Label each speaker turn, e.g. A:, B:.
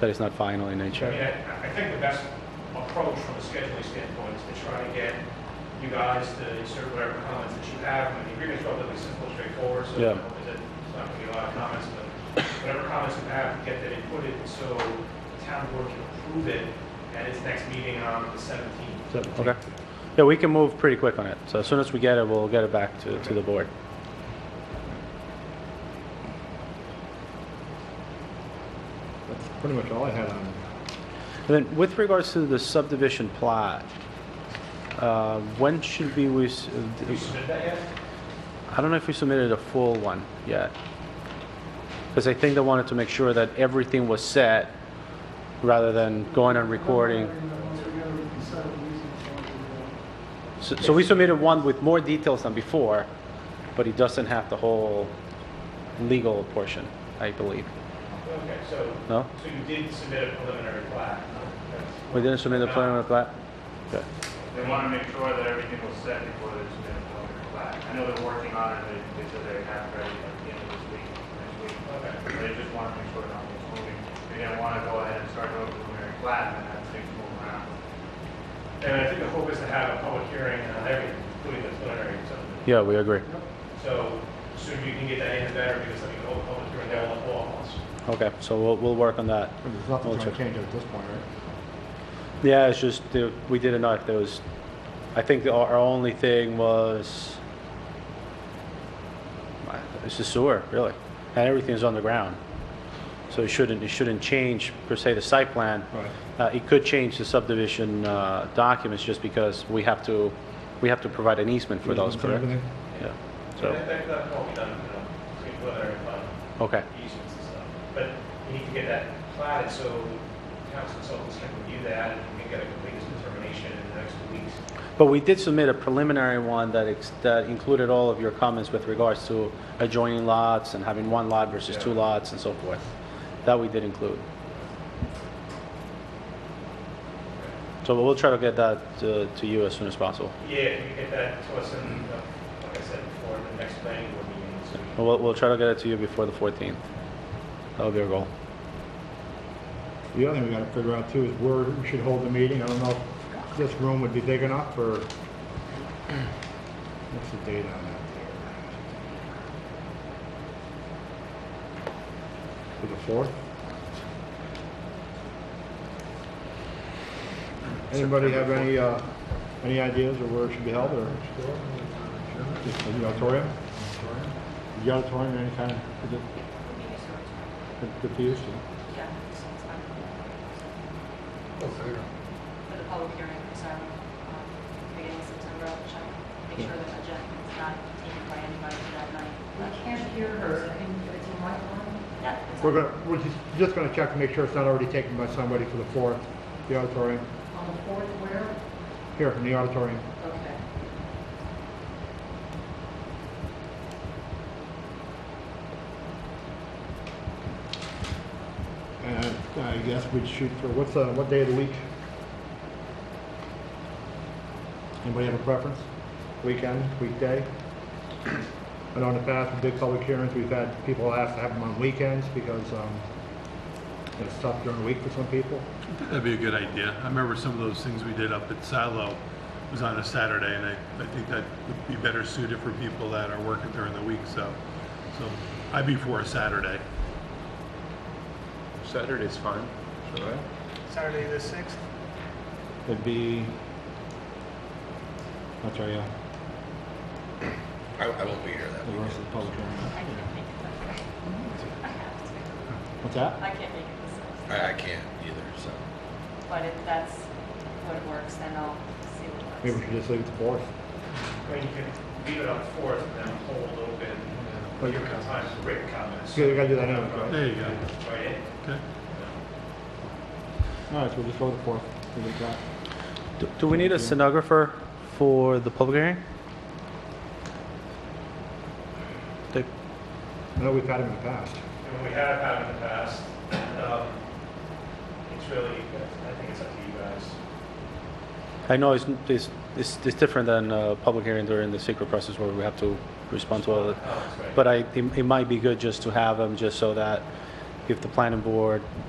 A: that it's not final in nature.
B: I mean, I, I think the best approach from a scheduling standpoint is to try to get you guys to insert whatever comments that you have. I mean, the agreement's relatively simple, straightforward, so
A: Yeah.
B: there's not gonna be a lot of comments, but whatever comments you have, get that inputted, so the town board can approve it at its next meeting on the seventeenth.
A: Okay. Yeah, we can move pretty quick on it. So as soon as we get it, we'll get it back to, to the board.
C: That's pretty much all I had on
A: And then with regards to the subdivision plot, uh, when should we, we s-
B: Did you submit that yet?
A: I don't know if we submitted a full one yet. Because I think they wanted to make sure that everything was set rather than going and recording. So so we submitted one with more details than before, but it doesn't have the whole legal portion, I believe.
B: Okay, so.
A: No?
B: So you did submit a preliminary plat?
A: We didn't submit the preliminary plat? Okay.
D: They want to make sure that everything was set before they submit a preliminary plat. I know they're working on it, they, they said they have it ready at the end of this week, next week. But They just want to make sure that it's moving. They didn't want to go ahead and start over preliminary plat and have things move around.
B: And I think the hope is to have a public hearing on everything, including the preliminary subdivision.
A: Yeah, we agree.
B: So sooner you can get that in, the better, because I mean, the whole public hearing, they're all walls.
A: Okay, so we'll, we'll work on that.
C: it. There's nothing
A: We'll
C: going
A: check.
C: to change at this point, right?
A: Yeah, it's just, the- we didn't know if there was, I think the- our only thing was, it's the sewer, really, and everything's on the ground. So it shouldn't, it shouldn't change per se the site plan.
C: Right.
A: Uh, It could change the subdivision uh, documents just because we have to, we have to provide an easement for those, correct?
C: Everything?
A: Yeah,
B: So
A: so,
B: that, that, that can all be done, you know, between preliminary plat,
A: okay,
B: easements and stuff. But you need to get that platted so town consultants can review that and you can get a complete determination in the next two weeks.
A: but we did submit a preliminary one that, ex- that included all of your comments with regards to adjoining lots and having one lot versus two
D: Yeah.
A: lots and so forth. That we did include. So we'll try to get that uh, to you as soon as possible.
B: Yeah, if you get that to us in, uh, like I said before, the next planning board meeting, so we
A: We'll, we'll try to get it to you before the 14th. That'll be our goal.
C: The other thing we got to figure out too is where we should hold the meeting. I don't know if this room would be big enough for, what's the date on that there? For the fourth? Anybody have any, uh, any ideas of where it should be held or? Just in the auditorium? The auditorium, any kind of, is it good- good to use?
E: Yeah, this one's fine. For the public hearing, so, um, beginning of September, I'll check, make sure that agenda is not taken by anybody for that night.
F: I can't hear her. I mean, it's a microphone.
E: Yeah, it's
C: We're
E: on.
C: gonna, we're just, just gonna check to make sure it's not already taken by somebody for the fourth, the auditorium,
F: On the fourth, where?
C: here in the auditorium.
F: Okay.
C: And I I guess we'd shoot for, what's, uh, what day of the week? Anybody have a preference? Weekend, weekday? I know in the past, with big public hearings, we've had people ask to have them on weekends because, um, it's tough during the week for some people.
G: That'd be a good idea. I remember some of those things we did up at Silo was on a Saturday, and I, I think that would be better suited for people that are working during the week, so, so I'd be for a Saturday.
H: Saturday's fine.
D: Saturday the sixth?
C: It'd be, I'll tell you,
H: I, I won't be here that
C: the rest of the public hearing.
E: I can't make it that night.
F: Mm-hmm.
E: I have to.
C: What's that?
E: I can't make it this night,
H: I, I can't either, so.
E: but if that's what works, then I'll see what works.
C: Maybe we should just leave it to fourth.
B: I mean, you can leave it on the fourth and then hold open,
C: But-
B: give it time to break comments.
C: Yeah, we gotta do that anyway, right?
G: There you go.
B: Right in.
G: Okay.
C: All right, so we'll just go to the fourth. We'll get that.
A: Do- Do we need a stenographer for the public hearing? They-
C: I know we've had him in the past.
B: And we have had in the past, um, it's really, I think it's up to you guys.
A: I know it's, it's, it's it's different than a public hearing during the secret process where we have to respond to all of it.
B: Oh, that's right.
A: But I, it it might be good just to have them, just so that if the planning board